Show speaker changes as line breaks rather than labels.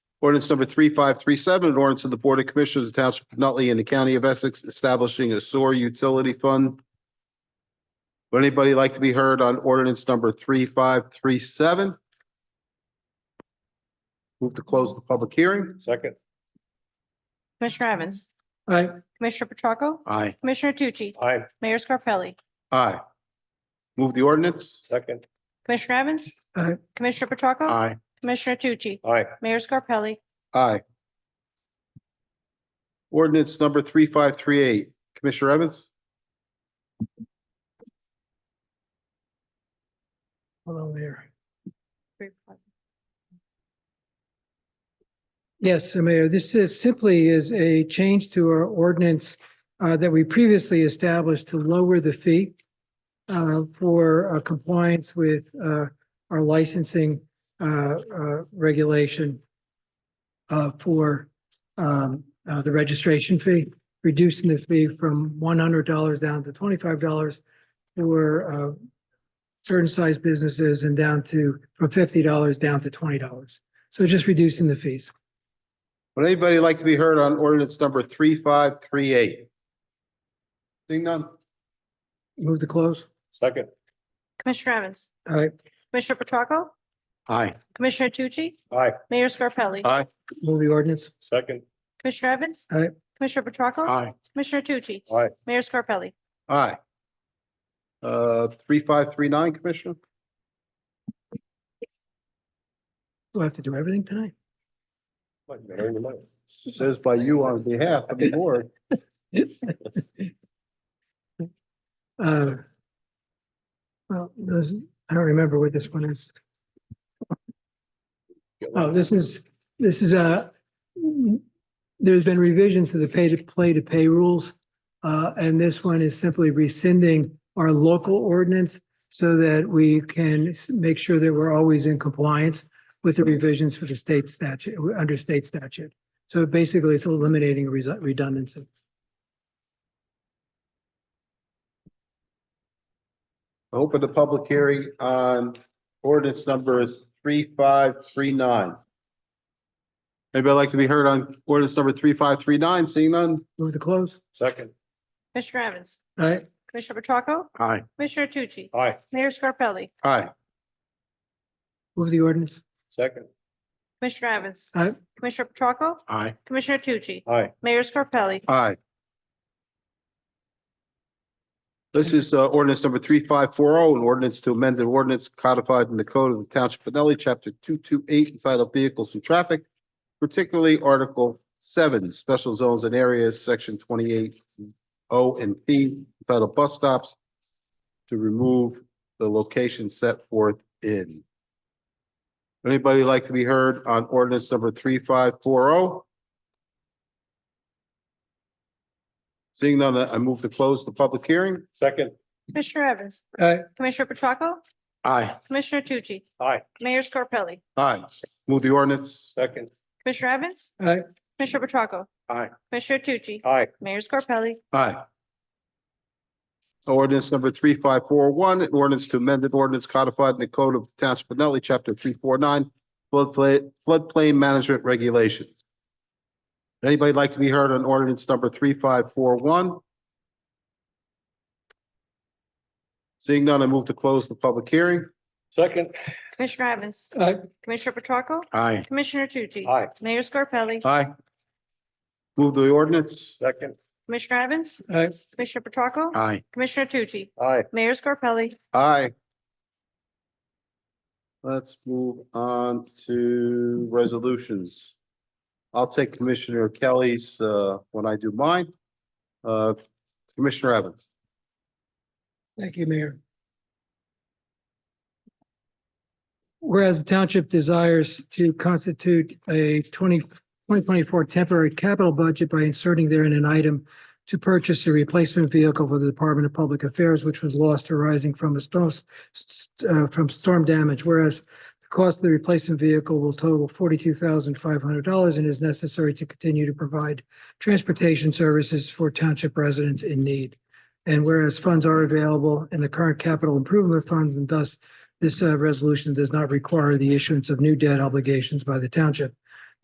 Ordinance number three five three seven, an ordinance of the Board of Commissioners of the Township of Nutley in the County of Essex establishing a sewer utility fund. Would anybody like to be heard on ordinance number three five three seven? Move to close the public hearing.
Second.
Commissioner Evans,
Aye.
Commissioner Petracca,
Aye.
Commissioner Tucci,
Aye.
Mayor Scarpelli,
Aye. Move the ordinance.
Second.
Commissioner Evans.
Aye.
Commissioner Petracca,
Aye.
Commissioner Tucci,
Aye.
Mayor Scarpelli,
Aye. Ordinance number three five three eight, Commissioner Evans?
Hello there. Yes, uh, Mayor, this is simply is a change to our ordinance uh, that we previously established to lower the fee uh, for uh, compliance with uh, our licensing uh, uh, regulation uh, for um, uh, the registration fee, reducing the fee from one hundred dollars down to twenty-five dollars for uh, certain size businesses and down to, from fifty dollars down to twenty dollars. So just reducing the fees.
Would anybody like to be heard on ordinance number three five three eight? Seeing none?
Move to close.
Second.
Commissioner Evans,
All right,
Commissioner Petracca,
Aye.
Commissioner Tucci,
Aye.
Mayor Scarpelli,
Aye.
move the ordinance.
Second.
Commissioner Evans.
Aye.
Commissioner Petracca,
Aye.
Commissioner Tucci,
Aye.
Mayor Scarpelli,
Aye. Uh, three five three nine, Commissioner?
We'll have to do everything tonight.
Says by you on behalf of the board.
Uh, Well, this, I don't remember what this one is. Oh, this is, this is a, there's been revisions to the pay to play to pay rules. Uh, and this one is simply rescinding our local ordinance so that we can s- make sure that we're always in compliance with the revisions for the state statute, under state statute. So basically, it's eliminating res- redundancy.
Open the public hearing on ordinance number three five three nine. Anybody like to be heard on ordinance number three five three nine? Seeing none?
Move to close.
Second.
Commissioner Evans,
All right,
Commissioner Petracca,
Aye.
Commissioner Tucci,
Aye.
Mayor Scarpelli,
Aye.
move the ordinance.
Second.
Commissioner Evans.
Aye.
Commissioner Petracca,
Aye.
Commissioner Tucci,
Aye.
Mayor Scarpelli,
Aye. This is uh, ordinance number three five four oh, an ordinance to amend an ordinance codified in the code of the Township of Nutley, chapter two two eight entitled Vehicles and Traffic, particularly Article seven, Special Zones and Areas, Section twenty eight O and P entitled Bus Stops to remove the location set forth in. Anybody like to be heard on ordinance number three five four oh? Seeing none, I move to close the public hearing.
Second.
Commissioner Evans,
All right,
Commissioner Petracca,
Aye.
Commissioner Tucci,
Aye.
Mayor Scarpelli,
Aye. Move the ordinance.
Second.
Commissioner Evans,
all right,
Commissioner Petracca.
Aye.
Commissioner Tucci,
Aye.
Mayor Scarpelli,
Aye. Ordinance number three five four one, an ordinance to amend an ordinance codified in the Code of the Township of Nutley, Chapter three four nine, floodplain, floodplain management regulations. Anybody like to be heard on ordinance number three five four one? Seeing none, I move to close the public hearing.
Second.
Commissioner Evans,
all right,
Commissioner Petracca,
Aye.
Commissioner Tucci,
Aye.
Mayor Scarpelli,
Aye. Move the ordinance.
Second.
Commissioner Evans,
all right,
Commissioner Petracca,
Aye.
Commissioner Tucci,
Aye.
Mayor Scarpelli,
Aye. Let's move on to resolutions. I'll take Commissioner Kelly's, uh, when I do mine. Uh, Commissioner Evans.
thank you, Mayor. Whereas the township desires to constitute a 20 2024 temporary capital budget by inserting therein an item to purchase a replacement vehicle for the Department of Public Affairs, which was lost arising from a storm, s- s- uh, from storm damage, whereas the cost of the replacement vehicle will total forty-two thousand five hundred dollars and is necessary to continue to provide transportation services for township residents in need. And whereas funds are available in the current capital improvement funds, and thus this uh, resolution does not require the issuance of new debt obligations by the township.